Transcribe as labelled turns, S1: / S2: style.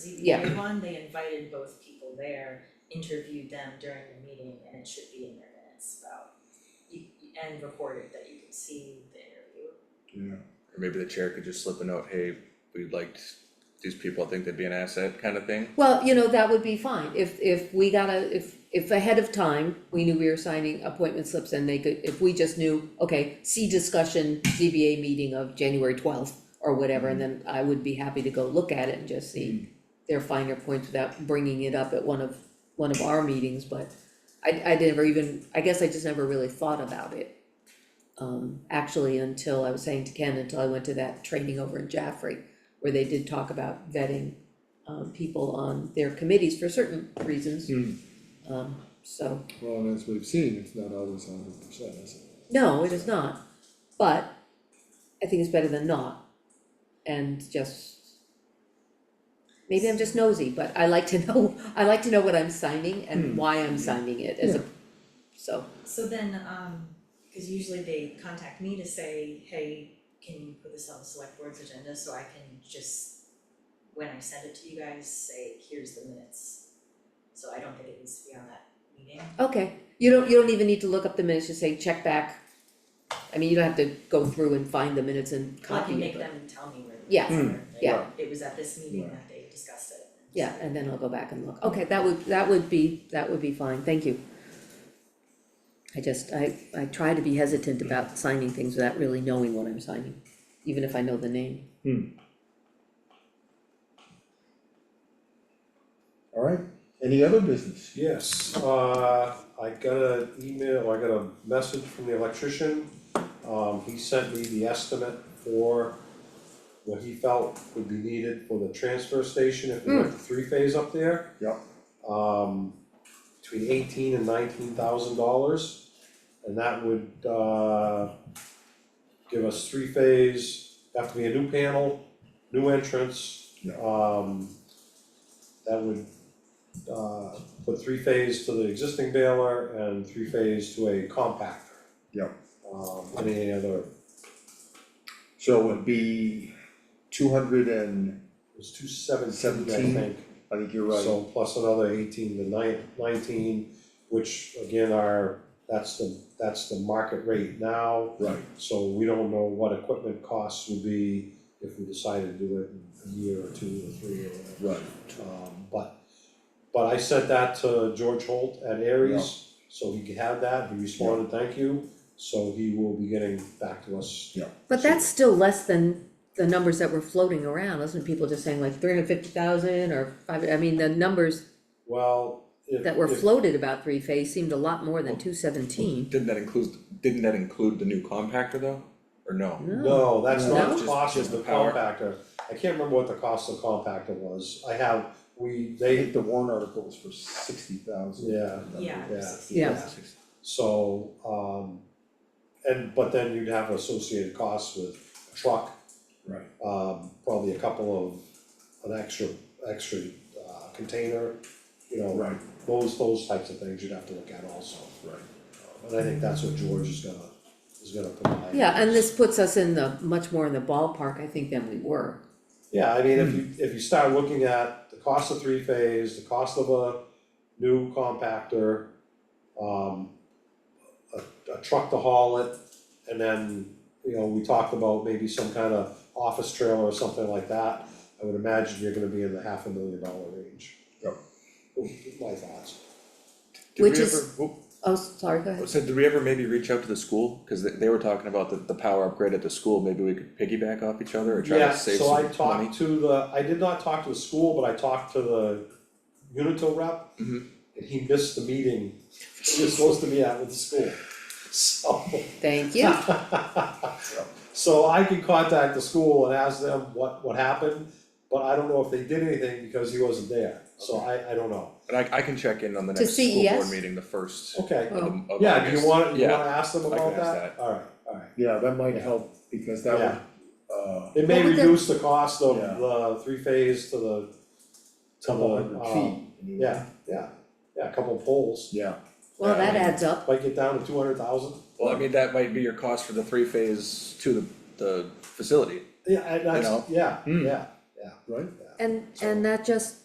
S1: Yeah.
S2: ZBA one, they invited both people there, interviewed them during the meeting, and it should be in their minutes about you, and recorded that you can see the interview.
S3: Yeah.
S4: Or maybe the chair could just slip a note, hey, we liked these people, I think they'd be an asset kind of thing.
S1: Well, you know, that would be fine, if, if we got a, if, if ahead of time, we knew we were signing appointment slips and they could, if we just knew, okay, see discussion, ZBA meeting of January twelfth or whatever, and then I would be happy to go look at it and just see their finer points without bringing it up at one of, one of our meetings, but I, I never even, I guess I just never really thought about it. Um, actually, until I was saying to Ken, until I went to that training over in Jaffrey, where they did talk about vetting um, people on their committees for certain reasons.
S3: Hmm.
S1: Um, so,
S3: Well, and as we've seen, it's not always a hundred percent, is it?
S1: no, it is not, but I think it's better than not. And just, maybe I'm just nosy, but I like to know, I like to know what I'm signing and why I'm signing it as a, so,
S2: So then, um, cause usually they contact me to say, hey, can you put this on the select board's agenda so I can just, when I send it to you guys, say, here's the minutes. So I don't think it needs to be on that meeting.
S1: okay. You don't, you don't even need to look up the minutes, just say check back. I mean, you don't have to go through and find the minutes and
S2: Well, I can
S1: copy
S2: make
S1: it, but,
S2: them tell me where the
S1: Yeah.
S2: minutes are, like,
S1: yeah.
S2: It was at this meeting
S3: Right.
S2: that they discussed it.
S1: yeah, and then I'll go back and look. Okay, that would, that would be, that would be fine, thank you. I just, I, I try to be hesitant about signing things without really knowing what I'm signing, even if I know the name.
S3: Alright, any other business?
S5: Yes, uh, I got an email, I got a message from the electrician. Um, he sent me the estimate for what he felt would be needed for the transfer station if we went to three-phase up there.
S3: Yep.
S5: Um, between eighteen and nineteen thousand dollars. And that would, uh, give us three-phase, have to be a new panel, new entrance.
S3: Yeah.
S5: Um, that would, uh, put three phase to the existing baler and three phase to a compactor.
S3: Yep.
S5: Um, and any other,
S3: So it would be two hundred and,
S5: it was two seventeen, I
S3: Seventeen,
S5: think,
S3: I think you're right,
S5: so plus another eighteen to nine, nineteen, which again are, that's the, that's the market rate now.
S3: right,
S5: So we don't know what equipment costs would be if we decided to do it in a year or two or three or whatever.
S3: right,
S5: Um, but, but I sent that to George Holt at Aries, so he could have that, he responded, thank you, so he will be getting back to us.
S1: But that's still less than the numbers that were floating around, wasn't people just saying like three hundred fifty thousand or five, I mean, the numbers
S5: Well, if,
S1: that were
S5: if-
S1: floated about three phase seemed a lot more than two seventeen.
S4: Didn't that include, didn't that include the new compactor though, or no?
S5: no, that's
S1: No?
S5: not the
S4: Just-
S5: cost
S4: just
S5: of the
S4: the power.
S5: compactor, I can't remember what the cost of the compactor was, I have, we,
S3: I
S5: they,
S3: think the warrant article was for sixty thousand.
S5: yeah,
S2: Yeah,
S5: Yeah.
S2: sixty
S1: Yeah.
S2: thousand.
S5: so, um, and, but then you'd have associated costs with a truck,
S3: Right,
S5: um, probably a couple of, an extra, extra, uh, container, you know.
S3: right,
S5: Those, those types of things you'd have to look at also,
S3: right,
S5: and I think that's what George is gonna, is gonna provide.
S1: Yeah, and this puts us in the, much more in the ballpark, I think, than we were.
S5: Yeah, I mean, if you, if you start looking at the cost of three phase, the cost of a new compactor, um, a, a truck to haul it, and then, you know, we talked about maybe some kind of office trailer or something like that. I would imagine you're gonna be in the half a million dollar range.
S3: Yep.
S5: My thoughts.
S4: Did we
S1: Which is-
S4: ever- oop,
S1: Oh, sorry, go ahead.
S4: So did we ever maybe reach out to the school, cause they they were talking about the the power upgrade at the school, maybe we could piggyback off each other or try to save some money?
S5: Yeah, so I talked to the, I did not talk to the school, but I talked to the Unitil rep.
S4: Mhm.
S5: And he missed the meeting he was supposed to be at with the school. So,
S1: Thank you.
S5: so I can contact the school and ask them what, what happened, but I don't know if they did anything because he wasn't there, so I, I don't know.
S4: But I I can check in on the
S1: To
S4: next school board
S1: CES?
S4: meeting, the first of
S5: Okay,
S1: Oh.
S4: the- of
S5: yeah, do you
S4: August.
S5: wanna, you
S4: Yeah.
S5: wanna ask them
S4: I can
S5: about
S4: ask
S5: that? Alright, alright.
S3: yeah, that might help, because that
S5: Yeah.
S3: would, uh,
S5: It may
S1: What would the-
S5: reduce the cost of
S3: Yeah.
S5: the three phase to the, to
S3: couple
S5: the,
S3: hundred
S5: um,
S3: feet. anyway.
S5: Yeah, yeah, yeah, a couple poles,
S3: Yeah,
S1: Well, that adds up.
S5: might get down to two hundred thousand.
S4: Well, I mean, that might be your cost for the three phase to the the facility.
S5: Yeah, and
S4: You know?
S5: that's, yeah,
S3: Hmm.
S5: yeah,
S3: right,
S1: and, and that just